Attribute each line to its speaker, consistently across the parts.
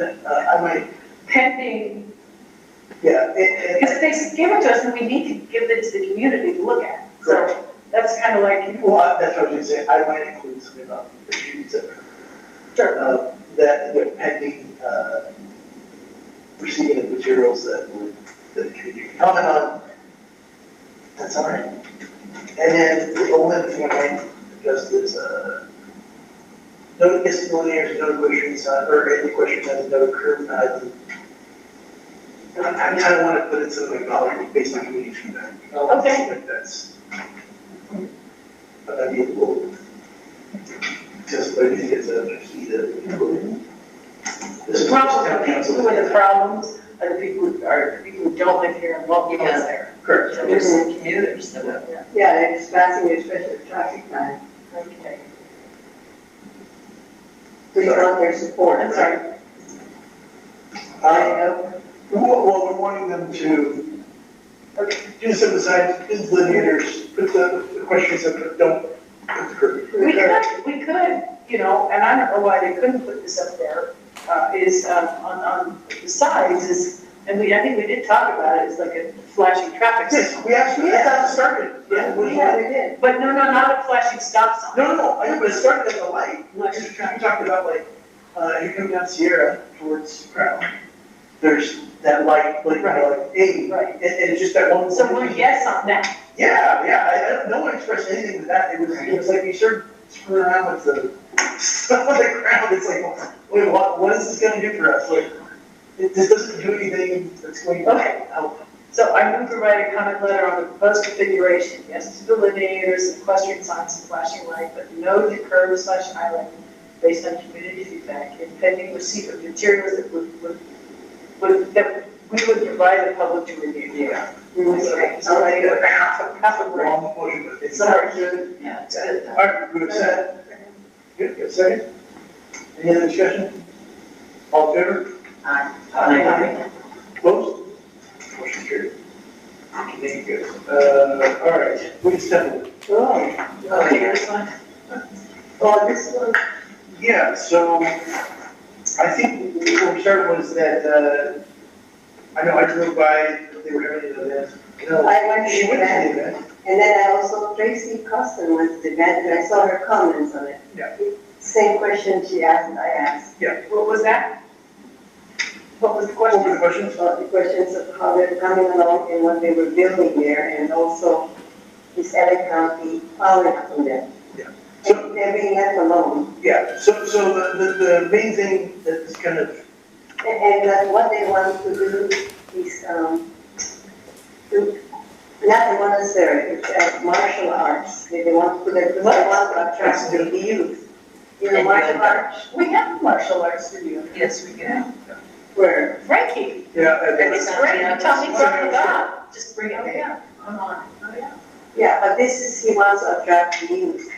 Speaker 1: uh, I might,
Speaker 2: pending,
Speaker 1: yeah, it,
Speaker 2: because
Speaker 1: it,
Speaker 2: they give it to us and we need to give it to the community to look at. So that's kind of like, you
Speaker 1: well, that's what I was saying, I might include something about the issues that, uh, that, that pending, uh, receiving of materials that would, that the community can comment on. That's all right. And then the only other thing I might address is, uh, no disciplinary, no questions, uh, or any question that is no curb, uh, I I kind of want to put it something about based on community feedback.
Speaker 2: Okay.
Speaker 1: Like that's. But I mean, we'll just, I think it's a key that.
Speaker 2: the problems are people who are the problems, are the people who are, the people who don't live here and won't be down there.
Speaker 1: Correct.
Speaker 2: There's some commuters that live there.
Speaker 3: Yeah, it's passing a special traffic time,
Speaker 2: Okay.
Speaker 3: we want their support.
Speaker 2: I'm sorry.
Speaker 1: Uh, Well, well, we're wanting them to uh, do some design, just lineators, put the the questions that don't.
Speaker 2: We could, we could, you know, and I don't know why they couldn't put this up there, uh, is, um, on, on the sides is, and we, I think we did talk about it, it's like a flashing traffic signal.
Speaker 1: Yes, we actually, that's how it started.
Speaker 3: Yeah, we have it in.
Speaker 2: But no, no, not a flashing stop sign.
Speaker 1: No, no, no, I know, but it started at the light, like, you talked about like, uh, you come down Sierra towards Crown. There's that light, like,
Speaker 2: Right.
Speaker 1: like, hey,
Speaker 2: Right.
Speaker 1: and, and it's just that one.
Speaker 2: So we're yes on that.
Speaker 1: Yeah, yeah, I, I, don't- no one expressed anything to that, it was, it was like, you started screwing around with the stuff on the ground, it's like, wait, what, what is this gonna do for us, like, it, this doesn't do anything that's going to
Speaker 2: Okay.
Speaker 1: help.
Speaker 2: So I move to write a comment letter on the proposed configuration, yes to delineators, equestrian signs, and flashing light, but no to curb slash island based on community feedback, and pending receipt of materials that would, would, would, that we would provide the public to review. Yeah. We would,
Speaker 1: Okay.
Speaker 2: so like, a half, a half a word.
Speaker 1: Long motion, but it's not.
Speaker 2: Sorry, good. Yeah, it's good.
Speaker 1: All right, good, second. Good, good, second. Any other discussion? All in favor?
Speaker 2: Aye.
Speaker 1: Close. Motion carried. Thank you. Uh, all right, please step in.
Speaker 3: Oh,
Speaker 2: Okay, here's one.
Speaker 3: well, this one,
Speaker 1: Yeah, so I think what we started was that, uh, I know I drove by, they were having an event. No,
Speaker 3: I went
Speaker 1: she
Speaker 3: to
Speaker 1: went to
Speaker 3: that,
Speaker 1: the event.
Speaker 3: and then I also, Tracy Costin went to the event, and I saw her comments on it.
Speaker 1: Yeah.
Speaker 3: Same question she asked, I asked,
Speaker 2: What was that? What was the
Speaker 1: What
Speaker 2: question?
Speaker 1: were the questions?
Speaker 3: about the questions of how they're coming along and what they were building there, and also is LA County following up on that?
Speaker 1: Yeah.
Speaker 3: And they're being left alone,
Speaker 1: Yeah, so, so the, the, the main thing that is kind of
Speaker 3: and, and that's what they want to do is, um, to, not the monastery, it's uh, martial arts, they they want to, they want to attract the youth. You know, martial arts,
Speaker 2: We have a martial arts studio.
Speaker 4: Yes, we can.
Speaker 3: where
Speaker 2: Frankie,
Speaker 1: Yeah, I think
Speaker 2: it's great, Tommy brought it up.
Speaker 4: Just bring
Speaker 2: Oh,
Speaker 4: it in.
Speaker 2: yeah, I'm on. Oh, yeah.
Speaker 3: Yeah, but this is, he wants to attract youth.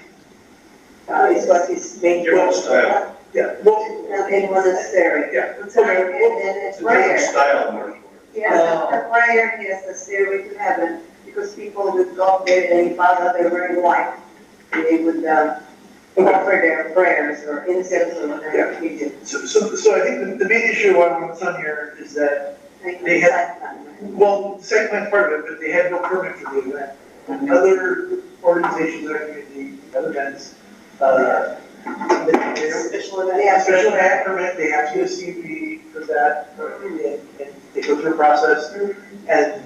Speaker 3: Uh, is what his main
Speaker 1: Your
Speaker 3: goal.
Speaker 5: style.
Speaker 1: yeah, well,
Speaker 3: Not in monastery.
Speaker 1: yeah.
Speaker 3: And then
Speaker 5: It's
Speaker 3: it's
Speaker 5: a different
Speaker 3: prayer.
Speaker 5: style of martial arts.
Speaker 1: Uh,
Speaker 3: Yes, the prayer, yes, the stairway to heaven, because people would go there and father, they were in white. And They would, uh,
Speaker 1: Okay,
Speaker 3: offer their prayers or incense or
Speaker 1: Yeah.
Speaker 3: whatever we did.
Speaker 1: so, so, so I think the, the main issue why we're on here is that,
Speaker 3: Like
Speaker 1: They had-
Speaker 3: the side plan, right?
Speaker 1: well, the site plan part of it, but they had no permit for the event. And Other organizations that are doing the events, uh, they, they don't,
Speaker 2: Official event.
Speaker 3: They have
Speaker 1: special event permit, they have to get a CUP for that, and, and they go through a process, and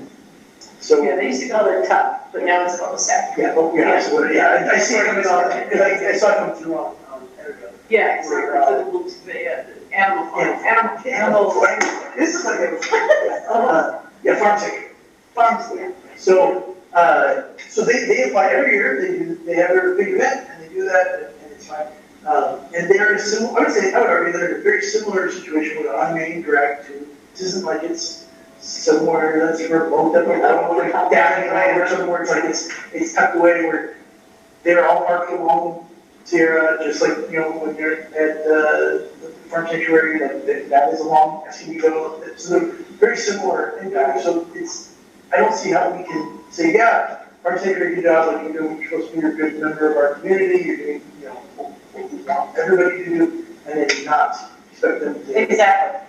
Speaker 1: so,
Speaker 2: Yeah, they used to call it top, but now it's called sack.
Speaker 1: yeah, oh, yeah, so, what- yeah, I, I see it coming on, because I, I saw it come through on, on, Energo.
Speaker 2: Yeah, it's like the little, the, uh, the animal, farm, animal, animal
Speaker 1: This is like a, uh, yeah, farm tech.
Speaker 2: farms, yeah.
Speaker 1: So, uh, so they, they apply every year, they do, they have their big event, and they do that, and- and it's fine. Um, and they're in a similar, I would say, I would argue they're in a very similar situation with on-main direct, to, this isn't like it's somewhere that's remote, up or down in land or somewhere, it's like it's, it's tucked away where they're all parked along Sierra, just like, you know, when you're at, uh, the farm sanctuary, like, that- that is along, as you go, so they're very similar, in fact. so it's, I don't see how we can say, yeah, our secretary, good job, like, you know, you're supposed to be a good member of our community, you're doing, you know, what we want everybody to do, and then not expect them to.
Speaker 2: Exactly.